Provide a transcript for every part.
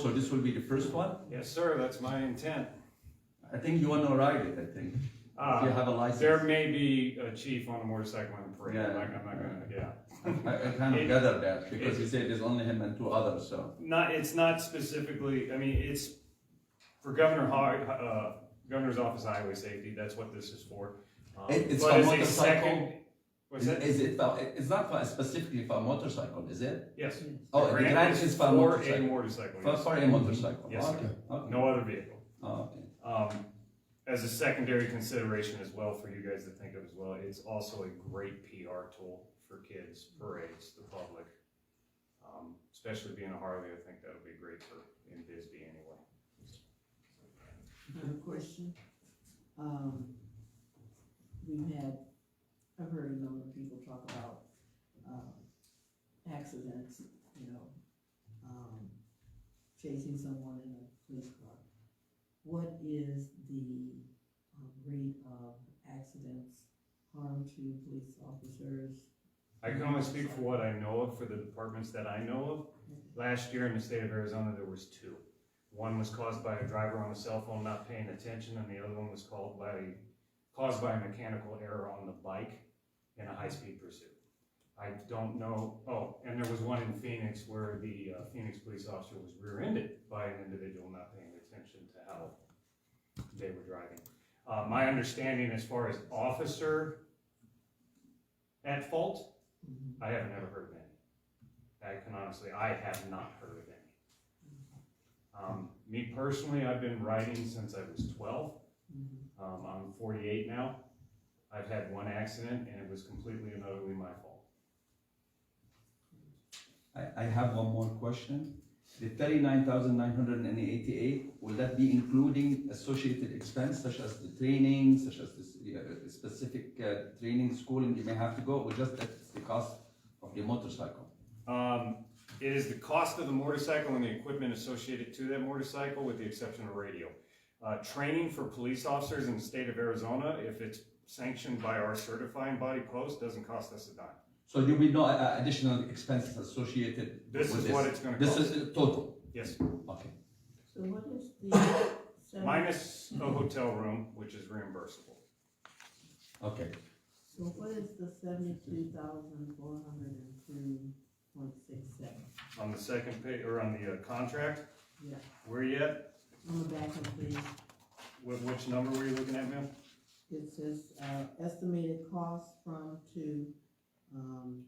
So this will be the first one? Yes, sir, that's my intent. I think you want to ride it, I think. If you Uh, have a There license. may be a chief on a motorcycle on parade, I'm not, I'm not gonna, yeah. I, I kind of It- gathered that because it- you said there's only him and two others, so. Not, it's not specifically, I mean, it's for Governor Hog, uh, Governor's Office of Highway Safety, that's what this is for. Um, It- it's but for a motorcycle? second- What's Is that? is it, for- it's not for specifically for a motorcycle, is it? Yes. Oh, The the grant grant is for a motorcycle. motorcycle, For, yes. for a motorcycle? Yes, sir. Okay, okay. No other vehicle. Oh, okay. um, as a secondary consideration as well for you guys to think of as well, it's also a great PR tool for kids, parades, the public. Um, especially being a Harley, I think that'll be great for in Bisbee anyway. I have a question. Um, we've had, I've heard a number of people talk about, um, accidents, you know, um, chasing someone in a police car. What is the um, rate of accidents, harm to police officers? I can only speak for what I know of for the departments that I know of. Last year in the state of Arizona, there was two. One was caused by a driver on a cell phone not paying attention, and the other one was called by, caused by a mechanical error on the bike in a high-speed pursuit. I don't know, oh, and there was one in Phoenix where the uh, Phoenix police officer was rear-ended by an individual not paying attention to how they were driving. Uh, my understanding as far as officer at fault, Mhm. I have never heard of any. I can honestly, I have not heard of any. Um, me personally, I've been riding since I was twelve. Mhm. Um, I'm forty-eight now. I've had one accident and it was completely and utterly my fault. I, I have one more question. The thirty-nine thousand nine hundred and eighty-eight, will that be including associated expense such as the training, such as this, yeah, the specific, uh, training school and you may have to go, or just that's the cost of the motorcycle? Um, it is the cost of the motorcycle and the equipment associated to that motorcycle with the exception of radio. Uh, training for police officers in the state of Arizona, if it's sanctioned by our certifying body post, doesn't cost us a dime. So there will be no uh, additional expenses associated This with is what it's gonna This cost. is uh, total, Yes, okay. So what is the? seven- Minus a hotel room, which is reimbursable. Okay, So what is the seventy-two thousand four hundred and two point six seven? On the second page, or on the uh, contract, Yeah, where you at? on the back of the, Wh- Which number were you looking at, ma'am? it says, uh, estimated cost from to, um,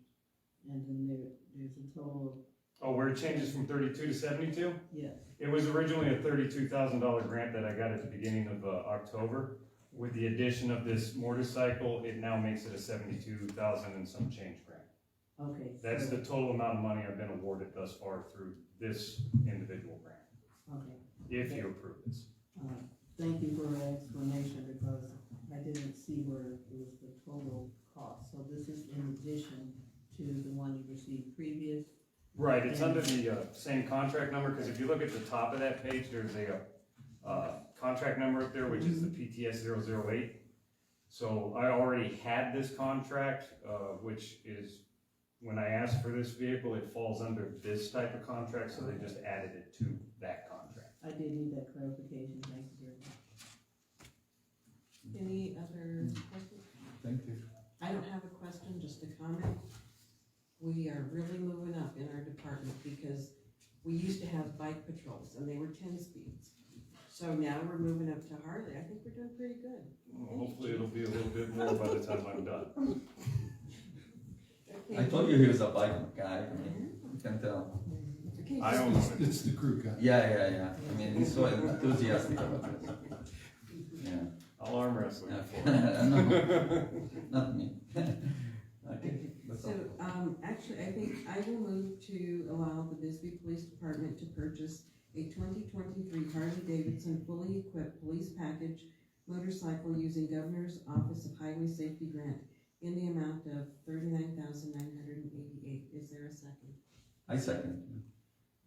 and then there, there's a total Oh, where it changes from thirty-two to seventy-two? of, yes. It was originally a thirty-two thousand dollar grant that I got at the beginning of, uh, October. With the addition of this motorcycle, it now makes it a seventy-two thousand and some change grant. Okay. That's so- the total amount of money I've been awarded thus far through this individual grant, Okay, if you approve this. uh, thank you for the explanation because I didn't see where it was the total cost. So this is in addition to the one you received previous. Right, it's under the, uh, same contract number, cause if you look at the top of that page, there's a, uh, contract number up there, which is the PTS 008. So I already had this contract, uh, which is, when I asked for this vehicle, it falls under this type of contract, so they just added it to that contract. I did need that clarification, thank you very much. Any other questions? thank you. I don't have a question, just a comment. We are really moving up in our department because we used to have bike patrols and they were ten speeds. So now we're moving up to Harley. I think we're doing pretty good. Hopefully it'll be a little bit more by the time I'm done. I told you he was a bike guy, I mean, you can tell. Okay, I just- own It's, one. it's the crew guy. Yeah, yeah, yeah, I mean, he's so enthusiastic about this. Yeah, I'll arm wrestle you for it. okay, no, not me. Okay, that's all. So, um, actually, I think I will move to allow the Bisbee Police Department to purchase a twenty twenty-three Harley Davidson fully equipped police package motorcycle using Governor's Office of Highway Safety Grant in the amount of thirty-nine thousand nine hundred and eighty-eight. Is there a second? I second.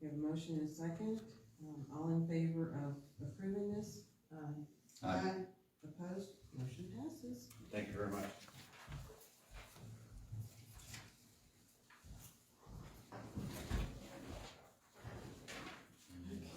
We have a motion and a second. Um, all in favor of approving this? Uh, Aye. Opposed? Motion passes. Thank you very much.